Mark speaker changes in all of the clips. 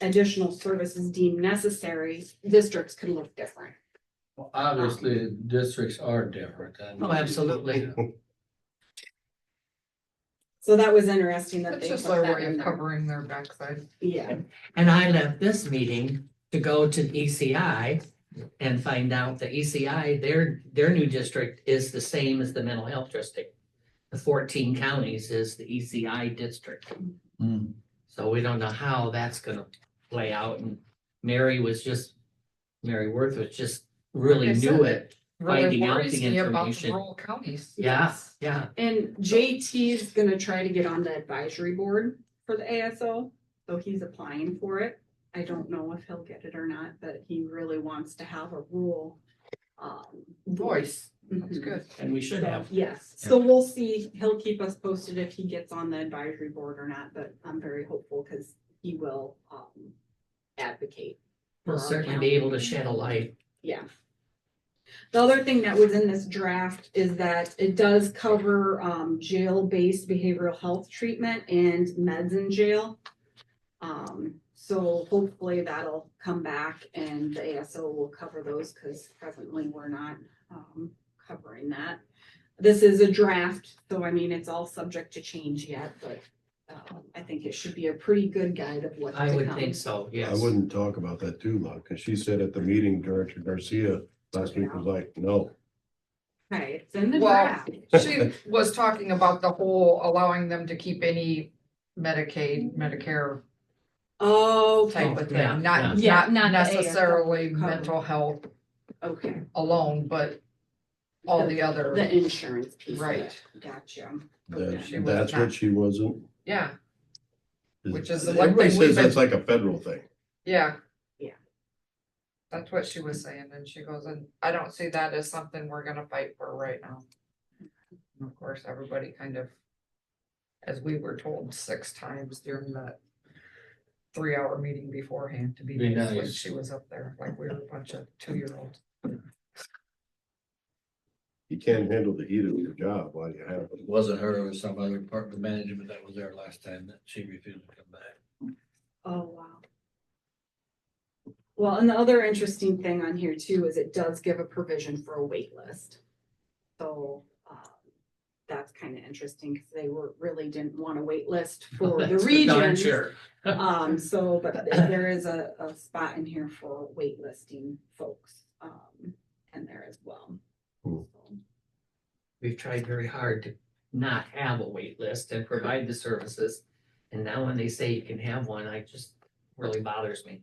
Speaker 1: additional services deemed necessary, districts can look different.
Speaker 2: Well, Obviously, districts are different. I mean,
Speaker 3: Oh, absolutely.
Speaker 2: you know,
Speaker 1: So that was interesting that
Speaker 4: It's
Speaker 1: they put
Speaker 4: just our
Speaker 1: that
Speaker 4: way
Speaker 1: in
Speaker 4: of
Speaker 1: there.
Speaker 4: covering their backside.
Speaker 1: Yeah,
Speaker 3: And I left this meeting to go to ECI and find out that ECI, their, their new district is the same as the mental health district. The fourteen counties is the ECI district,
Speaker 5: Hmm.
Speaker 2: mm,
Speaker 3: so we don't know how that's gonna play out and Mary was just, Mary Worth was just really
Speaker 4: Like I
Speaker 3: knew
Speaker 4: said.
Speaker 3: it.
Speaker 4: Really
Speaker 3: Finding out
Speaker 4: worries
Speaker 3: the
Speaker 4: me about the
Speaker 3: information.
Speaker 4: Rural counties.
Speaker 3: Yeah, yeah,
Speaker 1: and JT is gonna try to get on the advisory board for the ASO, so he's applying for it. I don't know if he'll get it or not, but he really wants to have a rule. um,
Speaker 4: Voice, that's
Speaker 1: Mhm.
Speaker 4: good.
Speaker 3: and we should
Speaker 1: So,
Speaker 3: have.
Speaker 1: yes, so we'll see, he'll keep us posted if he gets on the advisory board or not, but I'm very hopeful because he will, um, advocate. for
Speaker 3: We'll
Speaker 1: our
Speaker 3: certainly
Speaker 1: county.
Speaker 3: be able to shed a light.
Speaker 1: Yeah. The other thing that was in this draft is that it does cover um jail-based behavioral health treatment and meds in jail. Um, so hopefully that'll come back and the ASO will cover those because presently we're not um covering that. This is a draft, so I mean, it's all subject to change yet, but um I think it should be a pretty good guide of what's to
Speaker 3: I
Speaker 1: come.
Speaker 3: would think so,
Speaker 5: I
Speaker 3: yes.
Speaker 5: wouldn't talk about that too long, because she said at the meeting, Director Garcia last week was like, no.
Speaker 1: Okay, it's in the
Speaker 4: Well,
Speaker 1: draft.
Speaker 4: She was talking about the whole allowing them to keep any Medicaid, Medicare
Speaker 1: Okay,
Speaker 4: type of
Speaker 3: Oh, Yeah,
Speaker 4: thing, not,
Speaker 1: yeah. Yeah,
Speaker 4: not
Speaker 1: not the ASL
Speaker 4: necessarily
Speaker 1: cover.
Speaker 4: mental health
Speaker 1: okay.
Speaker 4: alone, but all the other,
Speaker 1: The insurance piece. of it.
Speaker 4: right,
Speaker 1: Gotcha.
Speaker 5: That-
Speaker 4: She was
Speaker 5: that's what
Speaker 4: not.
Speaker 5: she wasn't.
Speaker 4: yeah, Which is the one
Speaker 5: Everybody
Speaker 4: thing we've
Speaker 5: says that's like a federal thing.
Speaker 4: yeah.
Speaker 1: Yeah.
Speaker 4: That's what she was saying, and she goes, and I don't see that as something we're gonna fight for right now. And of course, everybody kind of, as we were told six times during that three-hour meeting beforehand to be,
Speaker 2: Be
Speaker 4: nice when
Speaker 2: nice.
Speaker 4: she was up there, like we were a bunch of two-year-olds.
Speaker 5: You can't handle the heat of your job while you have it.
Speaker 2: It wasn't her, it was some other department management that was there last time that she refused to come back.
Speaker 1: Oh, wow. Well, and the other interesting thing on here too is it does give a provision for a wait list. So, um, that's kind of interesting because they were, really didn't want a wait list for the
Speaker 3: That's for darn
Speaker 1: regions.
Speaker 3: sure.
Speaker 1: Um, so, but there is a, a spot in here for waitlisting folks, um, in there as well.
Speaker 5: Cool.
Speaker 3: we've tried very hard to not have a wait list and provide the services. And now when they say you can have one, I just really bothers me.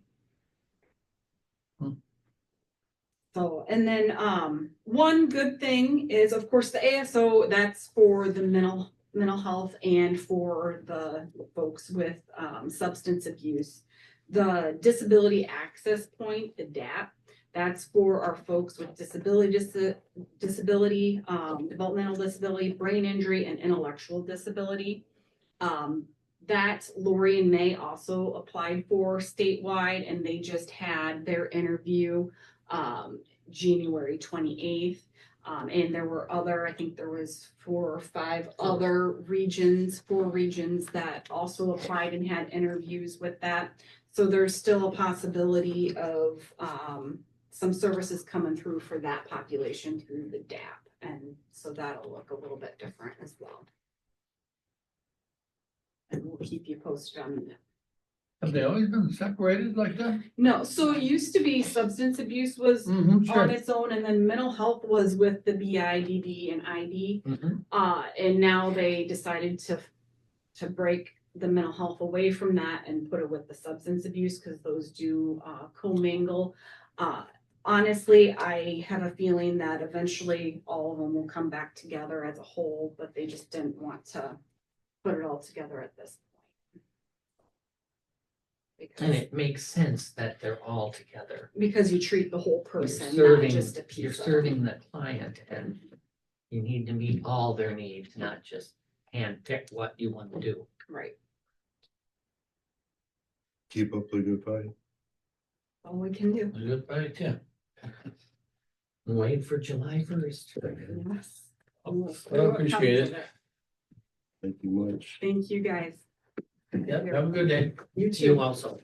Speaker 1: So, and then, um, one good thing is, of course, the ASO, that's for the mental, mental health and for the folks with, um, substance abuse. The Disability Access Point, the DAP, that's for our folks with disability, dis- disability, um, developmental disability, brain injury, and intellectual disability. Um, that Lori and May also applied for statewide, and they just had their interview um, January twenty-eighth. Um, and there were other, I think there was four or five other regions, four regions that also applied and had interviews with that. So there's still a possibility of, um, some services coming through for that population through the DAP. And so that'll look a little bit different as well. And we'll keep you posted on that.
Speaker 2: Have they always been separated like that?
Speaker 1: No, so it used to be substance abuse was
Speaker 2: Mm-hmm.
Speaker 1: on
Speaker 2: Sure.
Speaker 1: its own, and then mental health was with the BIDD and ID.
Speaker 3: Mhm.
Speaker 1: Uh, and now they decided to, to break the mental health away from that and put it with the substance abuse, because those do, uh, commingle. Uh, honestly, I have a feeling that eventually all of them will come back together as a whole, but they just didn't want to put it all together at this point.
Speaker 3: And
Speaker 1: Because,
Speaker 3: it makes sense that they're all together.
Speaker 1: because you treat the whole
Speaker 3: You're
Speaker 1: person, not
Speaker 3: serving,
Speaker 1: just a piece
Speaker 3: you're
Speaker 1: of them.
Speaker 3: serving the client and you need to meet all their needs, not just handpick what you want to do.
Speaker 1: Right,
Speaker 5: Keep up the good fight.
Speaker 1: all we can do.
Speaker 2: Good, right, yeah.
Speaker 3: Wait for July first.
Speaker 1: Yes.
Speaker 2: I appreciate it.
Speaker 5: Thank you much.
Speaker 1: Thank you, guys.
Speaker 2: Yep, have a good day.
Speaker 1: You
Speaker 3: You also.